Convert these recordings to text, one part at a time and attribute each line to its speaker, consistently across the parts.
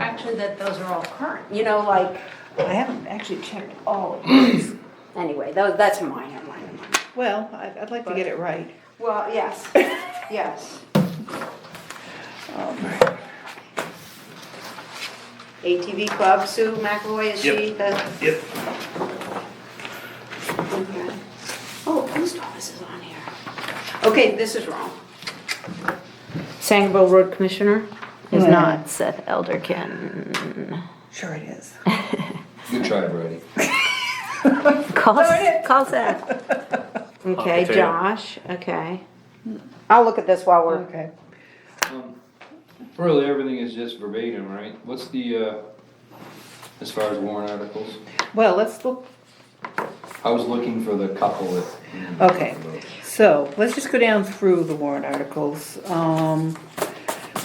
Speaker 1: actually that those are all current, you know, like,
Speaker 2: I haven't actually checked all of these.
Speaker 1: anyway, tho- that's mine, mine, mine.
Speaker 2: Well, I'd, I'd like to get it right.
Speaker 1: Well, yes, yes. ATV Club, Sue McAvoy, is she
Speaker 3: Yep.
Speaker 1: the?
Speaker 3: Yep.
Speaker 1: Okay. Oh, post office is on here. Okay, this is wrong. Sangerville Road Commissioner is
Speaker 2: Hmm.
Speaker 1: not Seth Elderkin.
Speaker 2: Sure it is.
Speaker 4: Good try, Brady.
Speaker 1: Call, call Seth. Okay,
Speaker 3: potato.
Speaker 1: Josh, okay. I'll look at this while we're,
Speaker 2: Okay.
Speaker 4: Um, Really, everything is just verbatim, right? What's the, uh, as far as warrant articles?
Speaker 2: Well, let's look,
Speaker 4: I was looking for the couple that.
Speaker 2: Okay. so, let's just go down through the warrant articles. Um,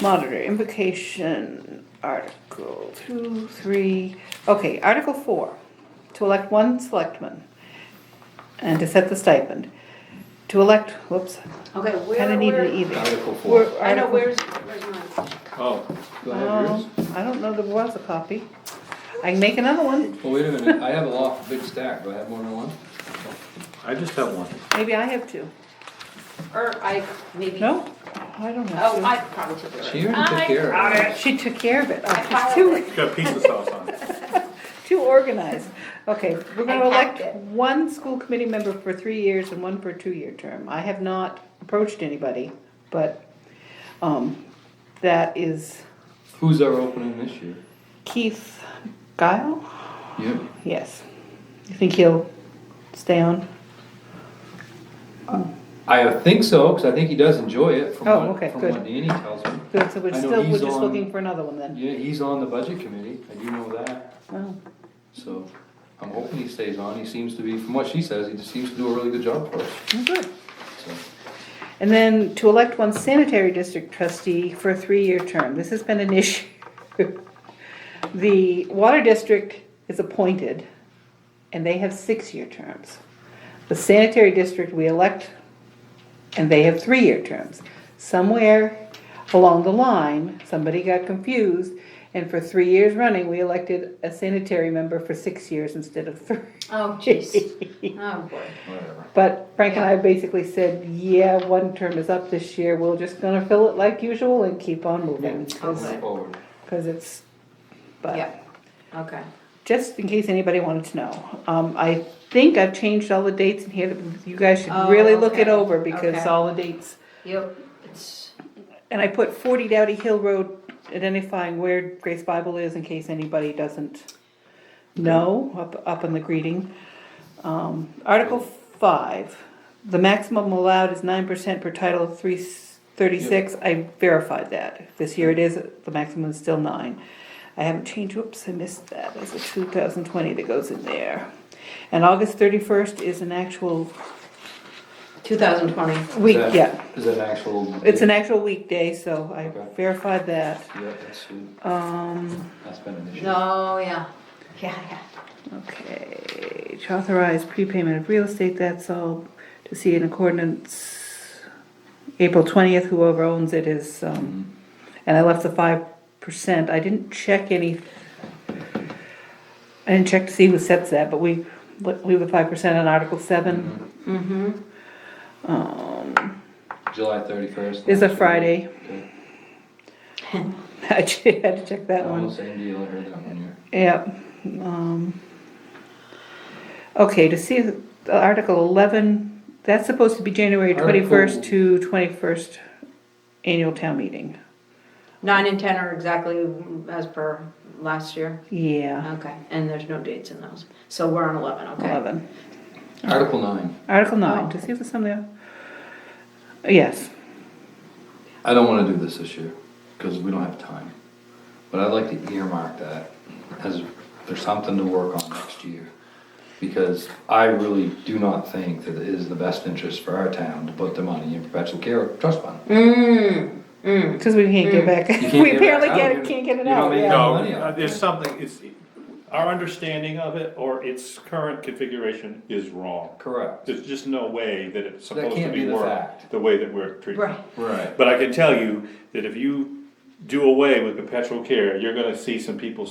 Speaker 2: monitor invocation, article two, three, okay, article four. To elect one selectman and to set the stipend. To elect, whoops,
Speaker 1: okay, where,
Speaker 2: kinda need an
Speaker 1: where?
Speaker 2: either.
Speaker 4: Article four.
Speaker 2: Where-
Speaker 1: I know,
Speaker 2: article-
Speaker 1: where's, where's mine?
Speaker 3: Oh,
Speaker 4: Do I have yours?
Speaker 2: Um, I don't know there was a copy. I can make another one.
Speaker 4: Oh, wait a minute, I have a lot, big stack, do I have more than one?
Speaker 3: I just have one.
Speaker 2: Maybe I have two.
Speaker 1: Or I, maybe.
Speaker 2: No, I don't have
Speaker 1: Oh,
Speaker 2: two.
Speaker 1: I probably took it.
Speaker 4: She already took care of it.
Speaker 2: She took care of it.
Speaker 1: I
Speaker 2: Oh,
Speaker 1: filed
Speaker 2: Too,
Speaker 1: it.
Speaker 3: Got pizza sauce on it.
Speaker 2: too organized. Okay, we're gonna
Speaker 1: I
Speaker 2: elect
Speaker 1: packed it.
Speaker 2: one school committee member for three years and one for a two-year term. I have not approached anybody, but, um, that is
Speaker 4: Who's our opening this year?
Speaker 2: Keith Guile?
Speaker 4: Yep.
Speaker 2: Yes. You think he'll stay on?
Speaker 4: I think so, cause I think he does enjoy it from
Speaker 2: Oh,
Speaker 4: what,
Speaker 2: okay,
Speaker 4: from
Speaker 2: good.
Speaker 4: what Danny tells me.
Speaker 2: Good, so we're
Speaker 4: I know
Speaker 2: still, we're
Speaker 4: he's
Speaker 2: just
Speaker 4: on-
Speaker 2: looking for another one then.
Speaker 4: Yeah, he's on the budget committee, I do know that,
Speaker 2: Oh.
Speaker 4: so I'm hoping he stays on, he seems to be, from what she says, he just seems to do a really good job for us,
Speaker 2: Oh, Good.
Speaker 4: so.
Speaker 2: And then to elect one sanitary district trustee for a three-year term. This has been an issue. The water district is appointed, and they have six-year terms. The sanitary district, we elect, and they have three-year terms. Somewhere along the line, somebody got confused, and for three years running, we elected a sanitary member for six years instead of three.
Speaker 1: Oh, jeez. Oh, boy.
Speaker 4: Whatever.
Speaker 2: But Frank and I basically said, yeah, one term is up this year, we're just gonna fill it like usual and keep on moving.
Speaker 1: Okay.
Speaker 4: Forward.
Speaker 2: Cause it's,
Speaker 1: Yeah,
Speaker 2: but,
Speaker 1: okay.
Speaker 2: just in case anybody wanted to know, um, I think I've changed all the dates in here, you guys should
Speaker 1: Oh,
Speaker 2: really look it
Speaker 1: okay,
Speaker 2: over because
Speaker 1: okay.
Speaker 2: all the dates.
Speaker 1: Yep, it's,
Speaker 2: And I put forty Dowdy Hill Road, identifying where Grace Bible is in case anybody doesn't know, up, up in the greeting. Um, Article five, the maximum allowed is nine percent per Title three thirty-six, I verified that. This year it is, the maximum is still nine. I haven't changed, whoops, I missed that, that's a two thousand twenty that goes in there. And August thirty-first is an actual
Speaker 1: 2020.
Speaker 2: week,
Speaker 4: Is that-
Speaker 2: yeah,
Speaker 4: Is that an actual?
Speaker 2: it's an actual weekday, so I
Speaker 4: Okay.
Speaker 2: verified that.
Speaker 4: Yeah, that's, true.
Speaker 2: Um,
Speaker 4: that's been an issue.
Speaker 1: No, Oh, yeah, yeah, yeah.
Speaker 2: okay, to authorize prepayment of real estate, that's all to see in accordance. April twentieth, whoever owns it is, um,
Speaker 4: Mm-hmm.
Speaker 2: and I left the five percent, I didn't check any. I didn't check to see who sets that, but we, leave the five percent on Article seven,
Speaker 1: Mm-hmm.
Speaker 2: Um,
Speaker 4: July thirty-first.
Speaker 2: It's a Friday.
Speaker 4: Okay.
Speaker 2: I che- had to check that one.
Speaker 4: Oh, same deal, I heard that one here.
Speaker 2: Yep. um, Okay, to see the Article eleven, that's supposed to be January twenty-first
Speaker 4: Article-
Speaker 2: to twenty-first annual town meeting.
Speaker 1: Nine and 10 are exactly as per last year.
Speaker 2: Yeah,
Speaker 1: Okay, and there's no dates in those. So we're on 11, okay?
Speaker 2: eleven.
Speaker 4: Article nine,
Speaker 2: Article
Speaker 1: Oh.
Speaker 2: nine, to see if there's something. Yes,
Speaker 4: I don't wanna do this this year, cause we don't have time. But I'd like to earmark that as, there's something to work on next year. Because I really do not think that it is the best interest for our town to put the money in perpetual care trust fund.
Speaker 1: Mm, mm.
Speaker 2: because we can't get back,
Speaker 4: You can't
Speaker 2: we
Speaker 4: get it
Speaker 2: apparently
Speaker 4: out.
Speaker 2: can't, can't get it
Speaker 4: You don't
Speaker 2: out,
Speaker 4: make it
Speaker 2: yeah.
Speaker 3: No,
Speaker 4: money out.
Speaker 3: uh, there's something, it's, our understanding of it or its current configuration is wrong.
Speaker 4: Correct.
Speaker 3: There's just no way that it's supposed to
Speaker 4: can't be
Speaker 3: be
Speaker 4: the
Speaker 3: worked
Speaker 4: fact.
Speaker 3: the way that we're treating.
Speaker 1: Right.
Speaker 3: it.
Speaker 4: Right.
Speaker 3: But I can tell you that if you do away with perpetual care, you're gonna see some people